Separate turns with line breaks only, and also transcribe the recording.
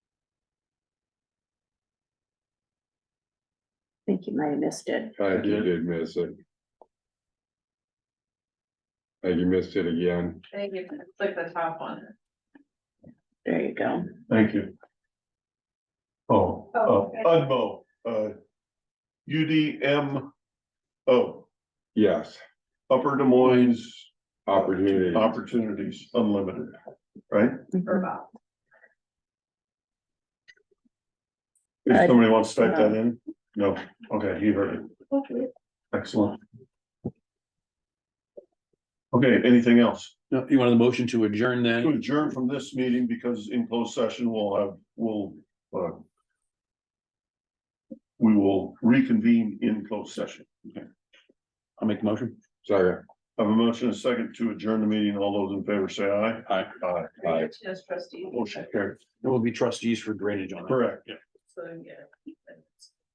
think you might have missed it.
I did miss it. And you missed it again.
I think you can click the top one.
There you go.
Thank you. Oh,
Oh,
uh, Udmo, uh. U D M. O,
Yes,
Upper Des Moines
opportunity.
Opportunities Unlimited.
Or about.
If
Uh,
somebody wants to type that in, no, okay, you heard it, excellent. Okay, anything else?
No, you wanted the motion to adjourn
To
then?
adjourn from this meeting because in closed session we'll have, we'll, uh. We will reconvene in closed session.
I'll make the motion.
Sorry,
I have a motion and a second to adjourn the meeting. All those in favor say aye.
Aye.
Aye.
Aye.
Yes, trustee.
Motion carried.
There will be trustees for drainage on it.
Correct.
So, yeah.